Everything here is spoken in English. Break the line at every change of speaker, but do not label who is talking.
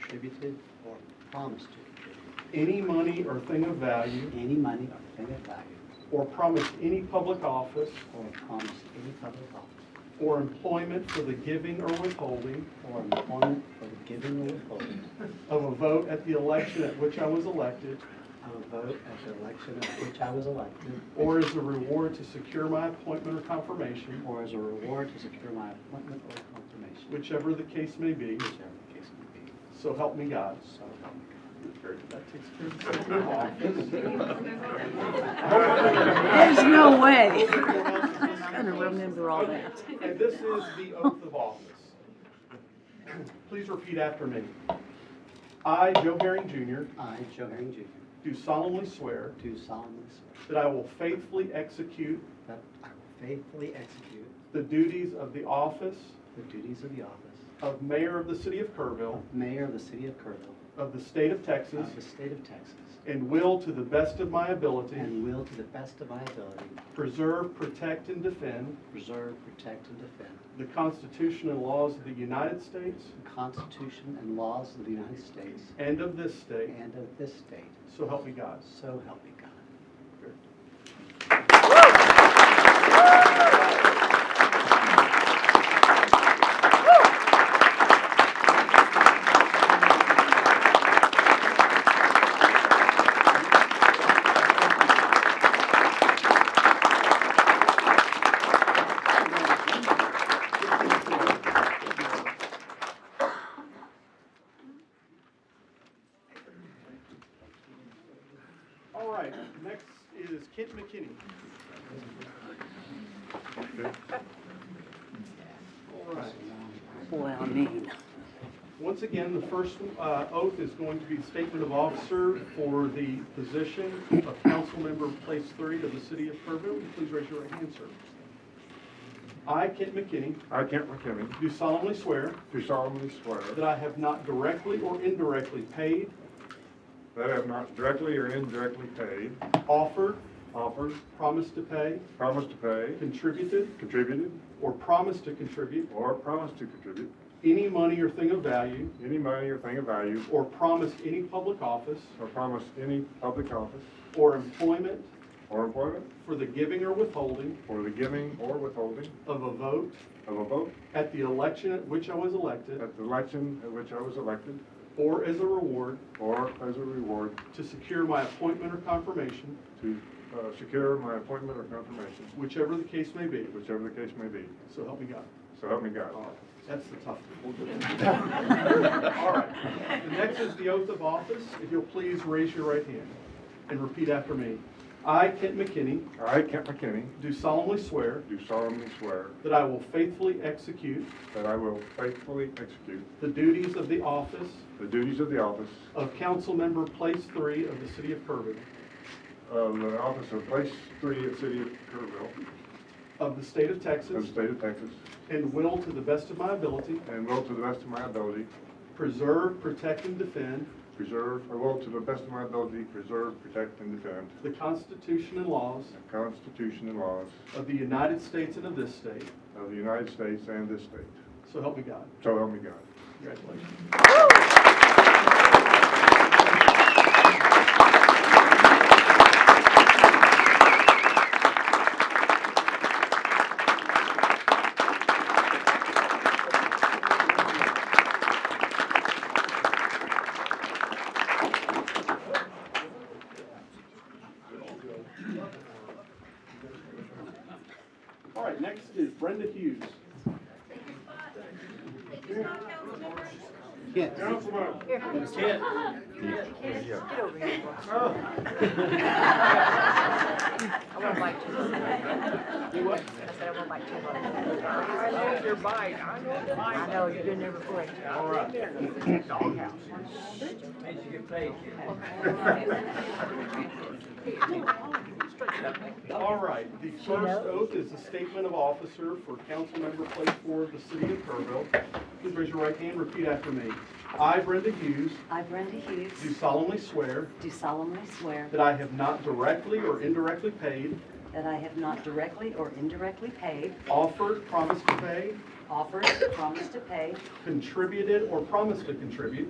contributed or promised to contribute
any money or thing of value,
any money or thing of value
or promised any public office
or promised any public office
or employment for the giving or withholding
or employment for the giving or withholding
of a vote at the election at which I was elected,
of a vote at the election at which I was elected
or as a reward to secure my appointment or confirmation,
or as a reward to secure my appointment or confirmation,
whichever the case may be,
whichever the case may be.
so help me God.
So help me God.
There's no way. I'm gonna remember all that.
And this is the oath of office. Please repeat after me. I, Joe Herring Jr.,
I, Joe Herring Jr.,
do solemnly swear
do solemnly swear
that I will faithfully execute
that I will faithfully execute
the duties of the office
the duties of the office
of Mayor of the City of Kerrville
of Mayor of the City of Kerrville
of the State of Texas
of the State of Texas
and will, to the best of my ability,
and will to the best of my ability
preserve, protect, and defend
preserve, protect, and defend
the Constitution and laws of the United States
the Constitution and laws of the United States
and of this state,
and of this state,
so help me God.
so help me God.
All right, next is Kent McKinney. All right.
Well, mean.
Once again, the first uh, oath is going to be statement of officer for the position of council member place three of the city of Kerrville. Please raise your right hand, sir. I, Kent McKinney,
I, Kent McKinney,
do solemnly swear
do solemnly swear
that I have not directly or indirectly paid,
that I have not directly or indirectly paid,
offered,
offered,
promised to pay,
promised to pay,
contributed,
contributed,
or promised to contribute
or promised to contribute
any money or thing of value,
any money or thing of value,
or promised any public office
or promised any public office
or employment
or employment
for the giving or withholding
for the giving or withholding
of a vote
of a vote
at the election at which I was elected,
at the election at which I was elected,
or as a reward
or as a reward
to secure my appointment or confirmation,
to uh, secure my appointment or confirmation,
whichever the case may be.
whichever the case may be.
So help me God.
So help me God.
All right. That's the tough one. All right. The next is the oath of office. If you'll please raise your right hand and repeat after me. I, Kent McKinney,
I, Kent McKinney,
do solemnly swear
do solemnly swear
that I will faithfully execute
that I will faithfully execute
the duties of the office
The duties of the office
of council member place three of the city of Kerrville,
of the office of place three at city of Kerrville
of the state of
of
Texas,
the state of Texas
and will, to the best of my ability,
and will to the best of my ability
preserve, protect, and defend
preserve, I will to the best of my ability preserve, protect, and defend
the Constitution and laws
the Constitution and laws
of the United States and of this state.
of the United States and this state.
So help me God.
So help me God.
Congratulations. All right, next is Brenda Hughes.
Yes.
Councilman.
Oh. I won't bite you.
Do what?
I said I won't bite you. I know your bite. I know your bite. I know, you've been there before.
All right. All right, the first oath is the statement of officer for council member place four of the city of Kerrville. Please raise your right hand, repeat after me. I, Brenda Hughes,
I, Brenda
do
Hughes,
solemnly swear
do solemnly swear
that I have not directly or indirectly paid,
that I have not directly or indirectly paid,
offered, promised to pay,
offered, promised to pay,
contributed, or promised to contribute